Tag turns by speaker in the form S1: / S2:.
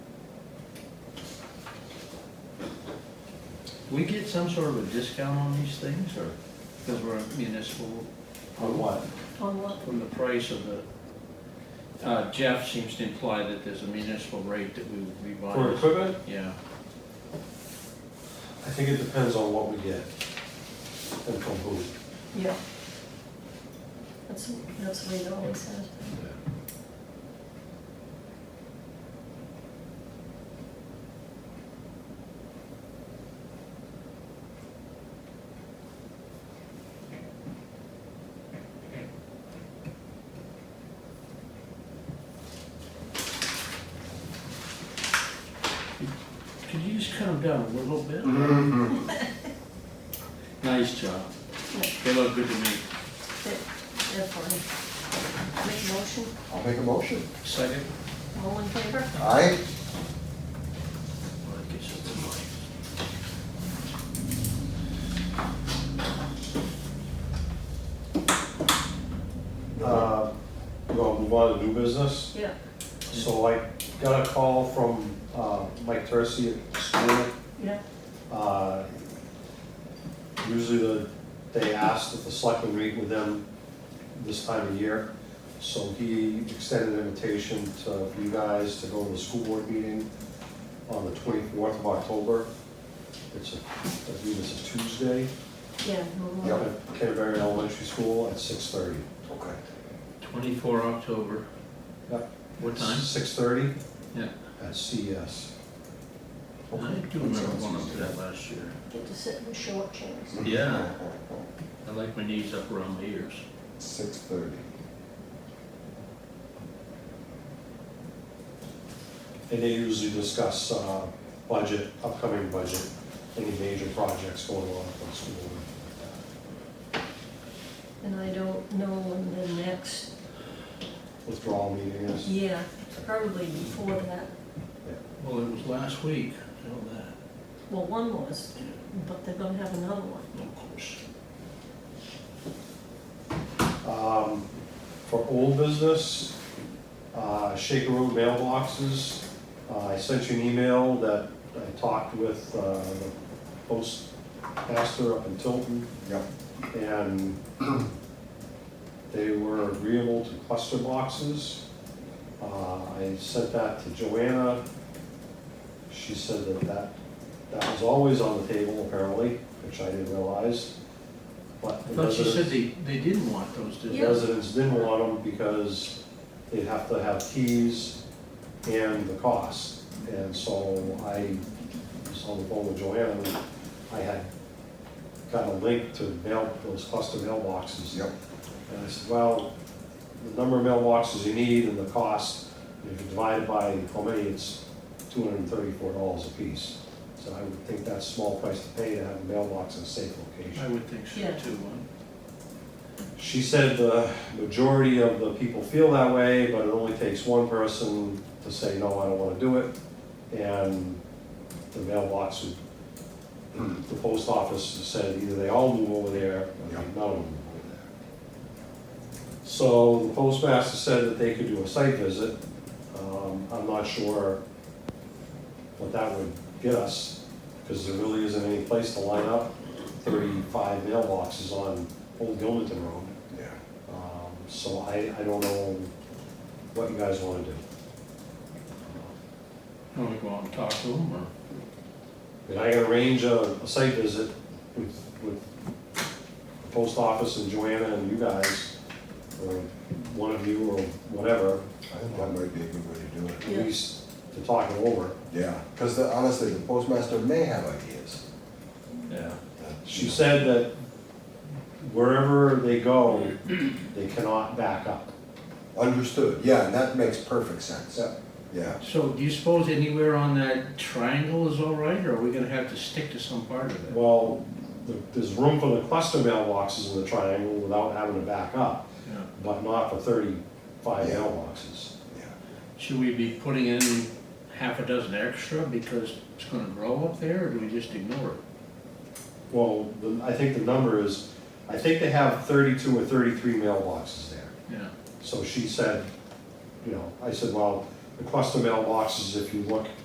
S1: we get some sort of a discount on these things, or, because we're a municipal,
S2: On what?
S3: On what?
S1: from the price of the, uh, Jeff seems to imply that there's a municipal rate that we would be buying.
S2: For equipment?
S1: Yeah,
S2: I think it depends on what we get and from who.
S3: Yeah. That's, that's what it always says.
S1: could you just cut them down a little bit? Nice job,
S3: Yeah,
S1: they look good to me.
S3: they're, they're funny. Make a motion,
S4: I'll make a motion.
S1: Second?
S3: all in favor?
S4: Aye.
S1: Well, that gets up to mine.
S2: Uh, You want to move on to new business?
S3: Yeah,
S2: So I got a call from uh, Mike Tercey at School.
S3: yeah,
S2: Uh, Usually the- they ask if the selectmen meet with them this time of year. So he extended an invitation to for you guys to go to the school board meeting on the 24th of October. It's, a I believe it's a Tuesday,
S3: yeah. no more.
S4: Yeah.
S2: at Canterbury Elementary School at 6:30.
S4: Okay.
S1: Twenty-four October.
S2: Yep.
S1: What time?
S2: 6:30
S1: Yeah.
S2: at E CES.
S1: I do remember going up to that last year.
S3: Get to sit in short chairs.
S1: Yeah. I like my knees up around my ears.
S4: Six thirty.
S2: And they usually discuss uh, budget, upcoming budget, any major projects going on at the school.
S3: And I don't know when the next,
S2: Withdrawal meeting is,
S3: yeah, probably before that.
S1: Well, it was last week, I know that.
S3: Well, one was, but they're gonna have another one.
S1: Of course.
S2: Um, for old business, uh, Shaker Road mailboxes. Uh, I sent you an email that I talked with uh, the postmaster up in Tilton.
S4: Yep.
S2: and they were agreeable to cluster boxes. Uh, I sent that to Joanna. She said that that, that was always on the table apparently, which I didn't realize. But
S1: I
S2: the
S1: thought you said
S2: residents,
S1: they, they didn't want those, did
S2: the
S1: they?
S3: Yeah.
S2: residents didn't want them because they'd have to have keys and the cost. And so I was on the phone with Joanna, and I had got a link to mail, those cluster mailboxes.
S4: Yep.
S2: And I said, well, the number of mailboxes you need and the cost, if you divide it by how many, it's two hundred and thirty-four dollars apiece. So I would think that's a small price to pay to have a mailbox in a safe
S1: I
S2: location.
S1: would think so
S3: Yeah.
S1: too. huh?
S2: She said the majority of the people feel that way, but it only takes one person to say, no, I don't wanna do it. And the mailbox, would- the post office said either they all move over there, or
S4: Yeah.
S2: none of them move over there. So the postmaster said that they could do a site visit. Um, I'm not sure what that would get us, because there really isn't any place to line up thirty-five mailboxes on Old Gilmanton Road.
S4: Yeah.
S2: Um, So I, I don't know what you guys wanna do.
S1: Why don't we go out and talk to them, or?
S2: And I can arrange a, a site visit with, with the post office and Joanna and you guys, or one of you or whatever,
S4: I think that might be a good way to do it.
S2: at
S3: Yeah.
S2: least to talk it over.
S4: Yeah, because honestly, the postmaster may have ideas.
S1: Yeah.
S4: that,
S2: She said that wherever they go, they cannot back up.
S4: Understood, yeah, and that makes perfect sense. Yeah,
S1: So do you suppose anywhere on that triangle is all right, or are we gonna have to stick to some part of it?
S2: Well, th- there's room for the cluster mailboxes in the triangle without having to back up,
S1: Yeah.
S2: but not for thirty-five
S4: Yeah.
S2: mailboxes.
S4: yeah.
S1: Should we be putting in half a dozen extra because it's gonna grow up there, or do we just ignore it?
S2: Well, the- I think the number is, I think they have thirty-two or thirty-three mailboxes there.
S1: Yeah.
S2: So she said, you know, I said, well, the cluster mailboxes, if you look